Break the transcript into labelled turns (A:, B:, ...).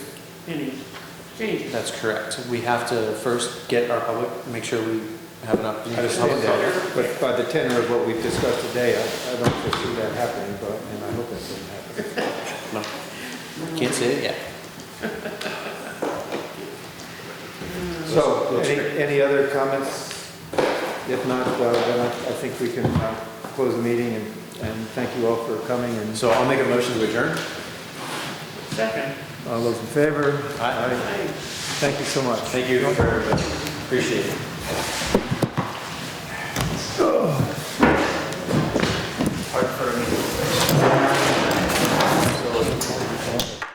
A: any changes.
B: That's correct. We have to first get our public, make sure we have an
C: I
B: opportunity to
C: understand
B: public comment.
C: that, but by the tenor of what we've discussed today, I I don't foresee that happening, but, and I hope it doesn't happen.
B: No, Can't say it yet.
C: So, any, any other comments? If not, uh, then I I think we can uh, close the meeting, and, and thank you all for coming, and
B: So I'll make a motion to adjourn.
A: Second,
C: all those in favor?
B: Aye.
C: Thank you so much.
B: Thank you for everybody. Appreciate it.